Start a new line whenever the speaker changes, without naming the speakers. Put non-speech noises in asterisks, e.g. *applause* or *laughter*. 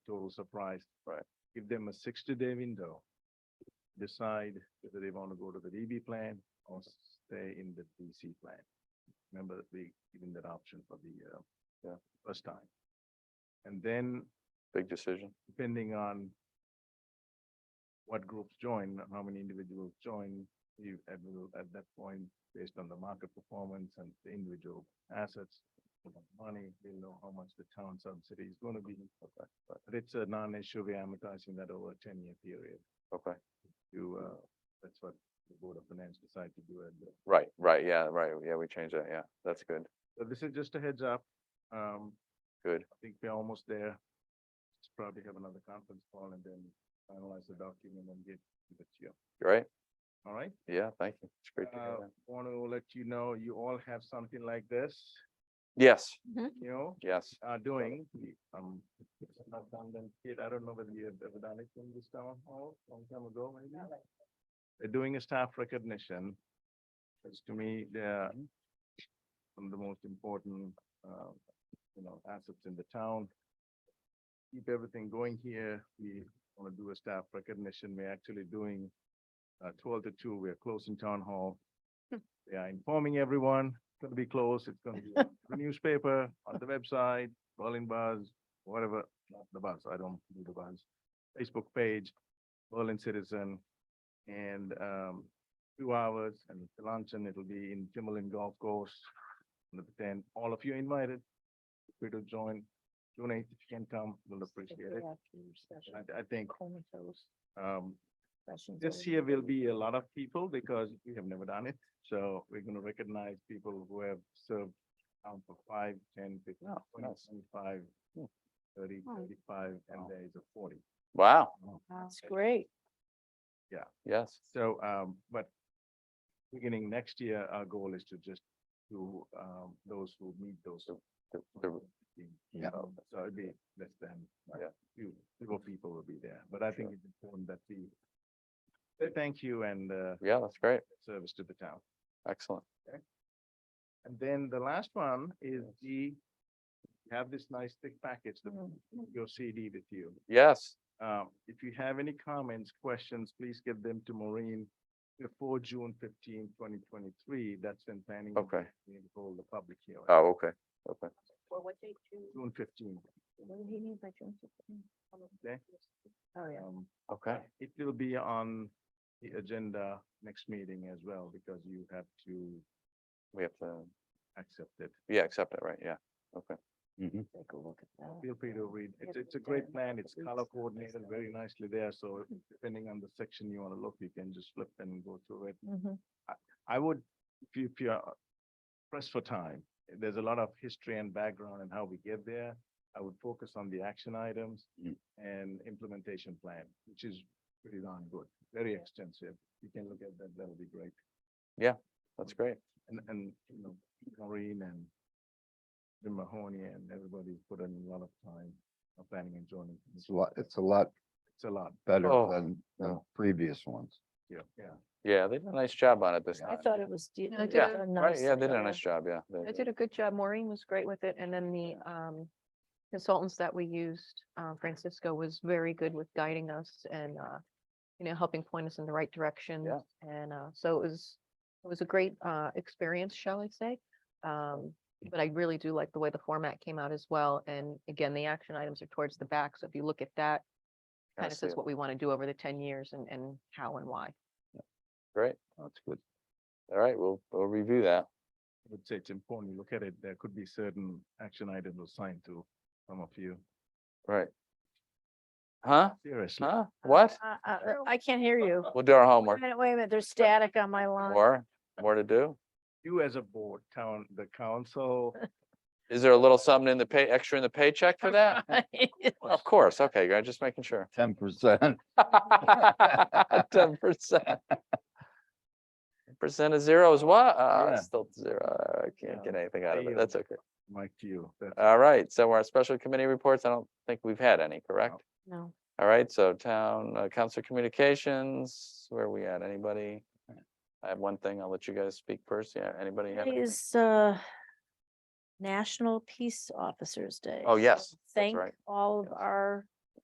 total surprise.
Right.
Give them a sixty-day window. Decide whether they want to go to the DB plan or stay in the DC plan. Remember that we given that option for the, uh,
Yeah.
first time. And then
Big decision.
depending on what groups join, how many individuals join, you, at, will- at that point, based on the market performance and the individual assets, money, we'll know how much the town subsidy is gonna be. But it's a non-issue, we're amortizing that over a ten-year period.
Okay.
You, uh, that's what the Board of Finance decided to do uh, at the
Right, right, yeah, right, yeah, we changed that, yeah, that's good,
So this is just a heads up. Um,
good,
I think we're almost there. Just Probably have another conference call and then finalize the document and get it to you.
You right,
All right?
yeah, thank you, it's great to hear
Uh,
that.
want to let you know, you all have something like this,
Yes,
you know,
yes,
are doing. Um, it's not done them yet. I don't know whether you have ever done it in this town hall, long time ago, maybe. They're doing a staff recognition. Which to me, they're one of the most important, uh, you know, assets in the town. Keep everything going here. We want to do a staff recognition. We're actually doing uh, twelve to two. We're closing town hall. They are informing everyone, it's gonna be closed, it's gonna be on the newspaper, on the website, Berlin Buzz, whatever, not the buzz, I don't do the buzz. Facebook page, Berlin Citizen, and, um, two hours and the luncheon, it'll be in Timberland Golf Course. And Then all of you invited, free to join, June eighth, if you can come, we'll appreciate it. I, I think, um, this year will be a lot of people because we have never done it. So we're gonna recognize people who have served town for five, ten, fifteen,
Oh,
twenty,
nice.
twenty-five,
Hmm.
thirty,
Oh.
thirty-five, and
Wow.
there is a forty.
wow,
That's great.
yes,
So, um, but beginning next year, our goal is to just do, um, those who meet those.
So, the, the,
Yeah. So it'd be less than, yeah,
Yeah.
few, few people will be there, but I think it's important that we say thank you and, uh,
yeah, that's great,
service to the town.
excellent,
And then the last one is the, have this nice thick package, the,
Mm.
Mm.
your CD with you.
yes,
Um, if you have any comments, questions, please get them to Maureen before June 15, 2023. That's when planning. and
Okay.
Zoning will Hold the public hearing.
oh, okay, okay,
Well, what they do,
June fifteen.
what did he mean by June fifteenth?
Okay.
Oh, yeah.
Um,
okay,
It will be on the agenda next meeting as well, because you have to
we have to,
accept it.
yeah, accept it, right, yeah, okay.
Take a look at that.
Feel free to read.
Yeah,
It's, it's a
but
great
then
plan. It's
it's
color
nice
coordinated
though.
very nicely there. So depending on the section you want to look, you can just flip and go through it.
Mhm.
I would, if you, if you're pressed for time, there's a lot of history and background and how we get there. I would focus on the action items
Mm.
and implementation plan, which is pretty darn good, very extensive. You can look at that, that'll be great.
That's great,
And, and, you know, Maureen and Jim Mahoney and everybody's put in a lot of time on planning and zoning.
It's a lot, it's a lot
It's a lot,
better
Oh.
than the
No.
previous ones.
yeah, yeah.
yeah, they did a nice job on it this
I
Uh,
time,
thought it was. de-
No, I
it was
did
yeah,
a
done
right, yeah, they did a
nicely.
nice job, yeah. they
I did a good job. Maureen was great with it. And then the um consultants that we used, uh, Francisco was very good with guiding us and uh, you know, helping point us in the right direction. And uh, so it was, it was a great uh experience, shall I say? Um, but I really do like the way the format came out as well. And again, the action items are towards the back. So if you look at that,
I
kind of
see
says
it.
what we want to do over the ten years and and how and why.
Great,
That's good.
all right, we'll, we'll review that,
I would say it's important, you look at it, there could be certain action items assigned to some of you.
right. Huh?
Seriously,
Huh? What?
Uh, uh, uh, I can't hear you.
We'll do our
Wait a
homework.
minute, wait a minute, there's static on my line.
More, more to do?
you as a board, town, the
*laughs*
council,
Is there a little something in the pay, extra in the paycheck for
*laughs*
*laughs*
that? Of course, okay, guys, just making sure.
Ten percent.
Ten percent. *laughs* Percent of zero is what? Uh,
Yeah.
it's still zero. I can't get anything out of it.
Deal.
That's okay.
Mike, to you, that's
All right, so our special committee reports, I don't think we've had any, correct?
No.
All right, so town, uh, council communications, where are we at? Anybody? I have one thing. I'll let you guys speak first. Yeah, anybody have?
Today
any-
is, uh, National Peace Officers Day.
Oh, yes,
so Thank
right.
all of
Yes.
our